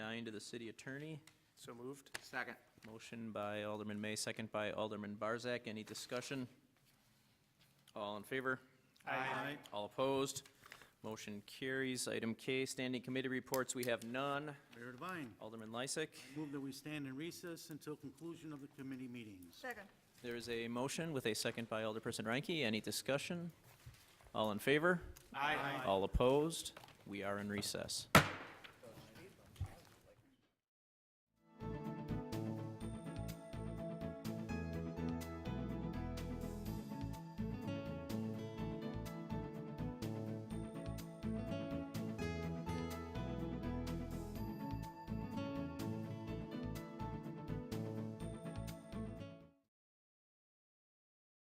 nine to the city attorney. So moved. Second. Motion by Alderman May, second by Alderman Barzak. Any discussion? All in favor? Aye. All opposed? Motion carries. Item K, standing committee reports, we have none. Mayor Devine, Alderman Lysick, move that we stand in recess until conclusion of the committee meetings. Second. there is a motion with a second by Alderperson Reinke. Any discussion? All in favor? Aye. All opposed? We are in recess.